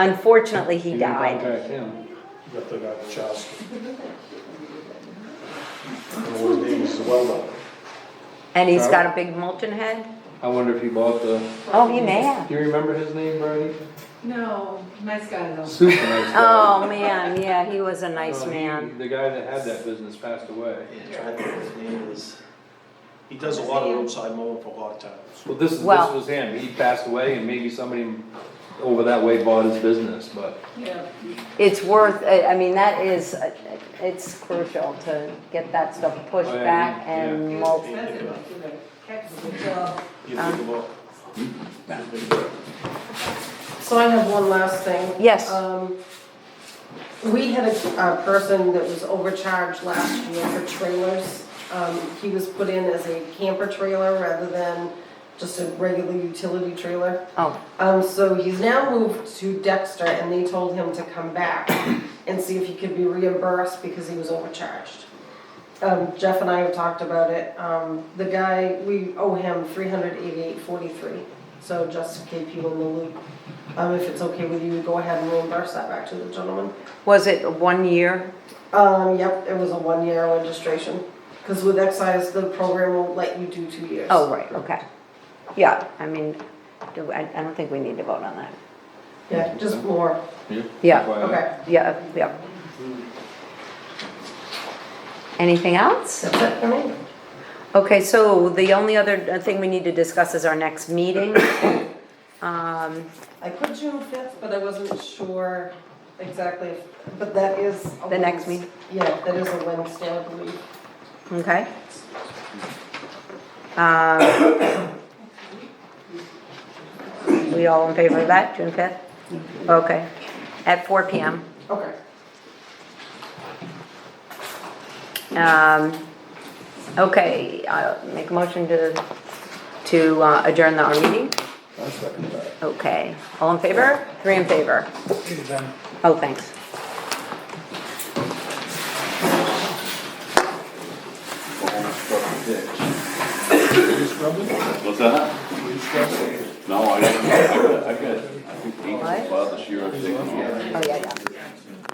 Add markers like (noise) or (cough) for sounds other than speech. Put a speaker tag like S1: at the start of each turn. S1: Unfortunately, he
S2: You can
S1: died.
S2: Contact him.
S3: That they got Chowski. And one of these is well
S1: And he's
S2: Sorry?
S1: got a big molten head?
S2: I wonder if he bought the,
S1: Oh, he may have.
S2: do you remember his name, Brady?
S4: No, nice guy though.
S2: Super nice guy.
S1: (laughs) Oh, man, yeah, he was a Oh, nice
S2: Well, he-
S1: man.
S2: The guy that had that business passed away.
S3: Yeah, trying to think his name is, he does a lot of roadside mowing for a lot of towns.
S2: Well, this is, this
S1: Well-
S2: was him, he passed away and maybe somebody over that way bought his business, but
S4: Yeah.
S1: It's worth, I I mean, that is, uh, it's crucial to get that stuff pushed
S2: Oh, yeah,
S1: back
S2: yeah.
S1: and
S4: Well,
S1: molten.
S4: expensive, but he did a heck of a good job.
S3: You think about.
S5: So I have one last thing.
S1: Yes.
S2: Uh,
S5: Um, We had a a person that was overcharged last year for trailers. Um, He was put in as a camper trailer rather than just a regular utility trailer.
S1: Oh,
S5: Um, So he's now moved to Dexter and they told him to come back and see if he could be reimbursed because he was overcharged. Um, Jeff and I have talked about it. Um, The guy, we owe him three hundred eighty-eight forty-three. So just to keep you in the loop, um, if it's okay with you, go ahead and reimburse that back to the gentleman.
S1: was it one year?
S5: Um, yep, it was a one-year registration. Because with excise, the program won't let you do two years.
S1: Oh, right, okay. Yeah, I mean, do, I, I don't think we need to vote on that.
S5: Yeah, just more.
S1: Yeah,
S2: FYI.
S5: Okay,
S1: yeah, yeah.
S2: Hmm.
S1: Anything else?
S5: that's it for me.
S1: Okay, so the only other uh, thing we need to discuss is our next meeting. Um,
S5: I put June fifth, but I wasn't sure exactly if, but that is. a
S1: The next
S5: Wednes-
S1: meeting?
S5: Yeah, that is a Wednesday, I believe.
S1: okay. Um, we all in favor of that, June fifth? Okay, at four P M.
S5: Okay.
S1: Um, okay, i make a motion to, to uh, adjourn our meeting. Okay, all in favor? Three in favor. Oh, thanks.
S6: What's that? No, I, I got, I got, I think eight
S1: What?
S6: this year, I think.
S1: Oh, yeah, yeah.